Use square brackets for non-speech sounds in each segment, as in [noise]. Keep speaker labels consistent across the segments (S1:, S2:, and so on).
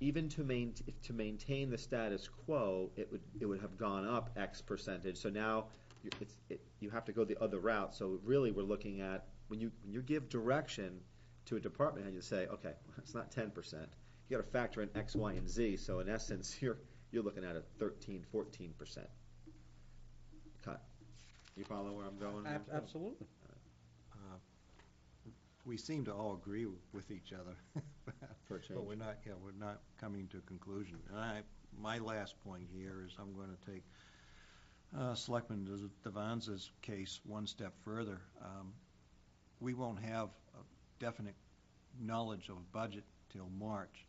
S1: even to main, if to maintain the status quo, it would, it would have gone up X percentage, so now you- it's, it, you have to go the other route, so really, we're looking at, when you, when you give direction to a department, and you say, okay, [laughs] it's not ten percent, you gotta factor in X, Y, and Z, so in essence, [laughs] you're, you're looking at a thirteen, fourteen percent cut. You follow where I'm going? here?
S2: Absolutely.
S3: We seem to all agree with each other. [laughs]
S1: For a
S3: But
S1: change.
S3: we're not, yeah, we're not coming to a conclusion. And I, my last point here is I'm going to take uh, Selectman Div- Devanza's case one step further. Um, We won't have a definite knowledge of budget till March.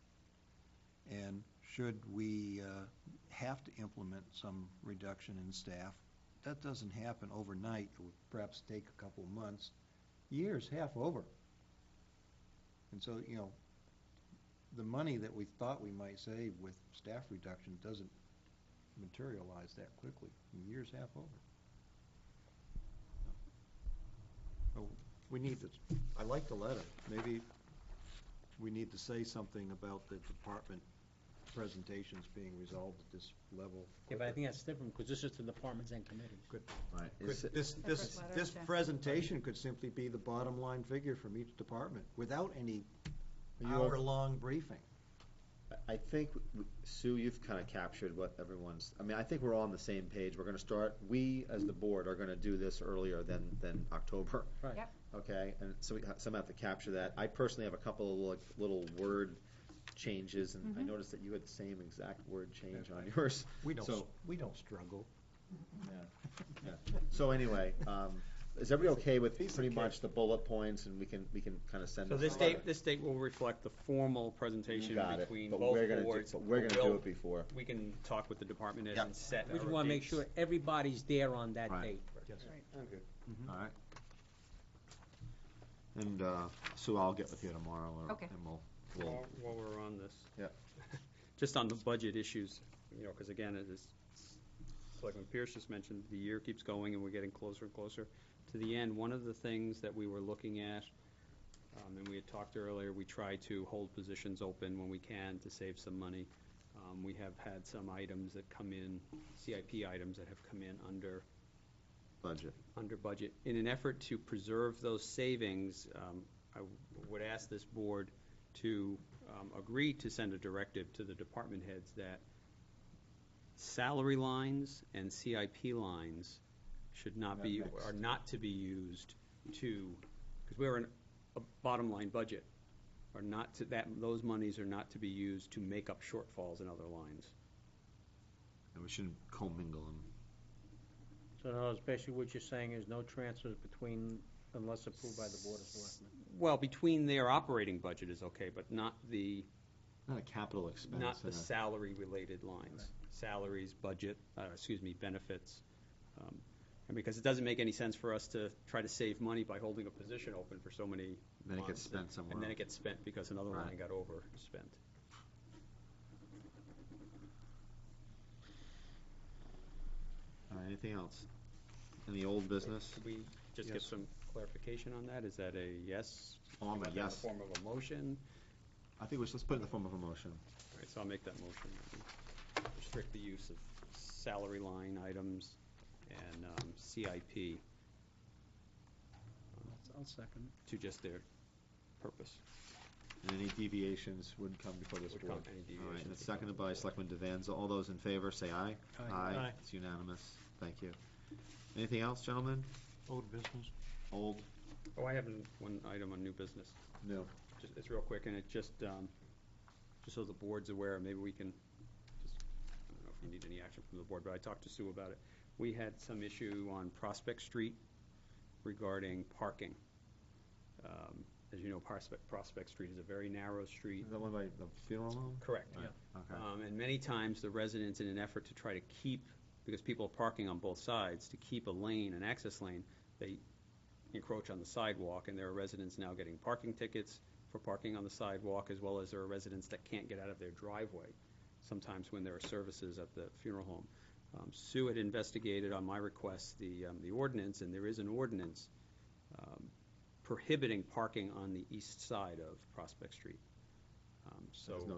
S3: And should we uh, have to implement some reduction in staff, that doesn't happen overnight. It would perhaps take a couple of months, years, half over. And so, you know, the money that we thought we might save with staff reduction doesn't materialize that quickly, The year's half over. So, Oh, We need to, I like the letter, maybe we need to say something about the department presentations being resolved at this level.
S2: Yeah, but I think that's different, because this is to departments and committees.
S1: Right.
S3: Could-
S1: Is it-
S3: This, this,
S4: Separate
S3: this
S4: letter, yeah.
S3: presentation could simply be the bottom line figure from each department, without any
S1: Are you o-
S3: hour-long briefing.
S1: I- I think, w- Sue, you've kind of captured what everyone's, I mean, I think we're all on the same page. We're going to start, we, as the board, are going to do this earlier than, than October.
S2: Right.
S4: Yep.
S1: Okay, and so we ha- somehow have to capture that. I personally have a couple of like little word changes, and I
S4: Mm-hmm.
S1: noticed that you had the same exact word change on yours.
S3: We don't,
S1: So-
S3: we don't struggle.
S1: yeah. So anyway, um, is everybody okay with
S3: Piece of
S1: pretty
S3: cake.
S1: much the bullet points, and we can, we can kind of send
S5: So
S1: this
S5: this
S1: out?
S5: date, this date will reflect the formal
S1: You
S5: presentation
S1: got it,
S5: between
S1: but we're
S5: both
S1: gonna do-
S5: boards.
S1: But we're going to do it before.
S5: We can talk with the department heads
S3: Yeah.
S5: and set
S2: We just
S5: our
S2: want to make
S5: dates.
S2: sure everybody's there on that
S1: Right.
S2: date.
S3: Yes.
S1: All right. And, uh, Sue, I'll get with you tomorrow, or-
S4: Mm-hmm. Okay.
S1: and we'll, we'll,
S5: While while we're on this.
S1: Yeah.
S5: [laughs] Just on the budget issues, you know, because again, it is, it's like when Pierce just mentioned, the year keeps going and we're getting closer and closer to the end. One of the things that we were looking at, um, and we had talked earlier, we try to hold positions open when we can to save some money. Um, We have had some items that come in, CIP items that have come in under
S1: budget.
S5: under budget. In an effort to preserve those savings, um, I would ask this board to um, agree to send a directive to the department heads that salary lines and CIP lines should not be,
S1: Not mixed.
S5: are not to be used to, because we're in a bottom-line budget, are not to, that, those monies are not to be used to make up shortfalls in other lines.
S1: And we shouldn't commingle them.
S2: So no, basically what you're saying is no transfers between, unless approved by the Board of Selectmen.
S5: Well, between their operating budget is okay, but not the
S1: Not a capital expense. uh,
S5: Not the
S1: and a-
S5: salary-related lines. Salaries, budget, uh, excuse me, benefits. Um, And because it doesn't make any sense for us to try to save money by holding a position open for so many
S1: Then it gets
S5: months,
S1: spent
S5: and-
S1: somewhere
S5: And then it
S1: else.
S5: gets spent because another
S1: Right.
S5: line got overspent.
S1: All right, anything else? Any old business?
S5: Could we just get
S3: Yes.
S5: some clarification on that? Is that a yes?
S1: Oh, I'm a
S5: Is that
S1: yes.
S5: In the form of a motion?
S1: I think we should, let's put it in the form of a motion.
S5: All right, so I'll make that motion. that we Restrict the use of salary line items and um, CIP
S2: I'll second.
S5: to just their purpose.
S1: And any deviations would come before this
S5: Would
S1: board.
S5: come-
S1: All
S5: any
S1: right, and
S5: deviations
S1: it's
S5: would
S1: seconded by Selectman Devanza. All those in favor, say aye.
S3: Aye.
S1: Aye,
S3: Aye.
S1: it's unanimous. Thank you. Anything else, gentlemen?
S3: Old business?
S1: Old?
S5: Oh, I have one item on new business.
S1: No.
S5: Just, it's real quick, and it just, um, just so the board's aware, maybe we can, just, I don't know if you need any action from the board, but I talked to Sue about it. We had some issue on Prospect Street regarding parking. Um, As you know, Prospect, Prospect Street is a very narrow street.
S1: Is that one by the funeral home?
S5: Correct.
S1: Yeah. Okay.
S5: Um, And many times, the residents, in an effort to try to keep, because people are parking on both sides, to keep a lane, an access lane, they encroach on the sidewalk, and there are residents now getting parking tickets for parking on the sidewalk, as well as there are residents that can't get out of their driveway, sometimes when there are services at the funeral home. Um, Sue had investigated on my request the, um, the ordinance, and there is an ordinance um, prohibiting parking on the east side of Prospect Street. Um, So.
S1: There's no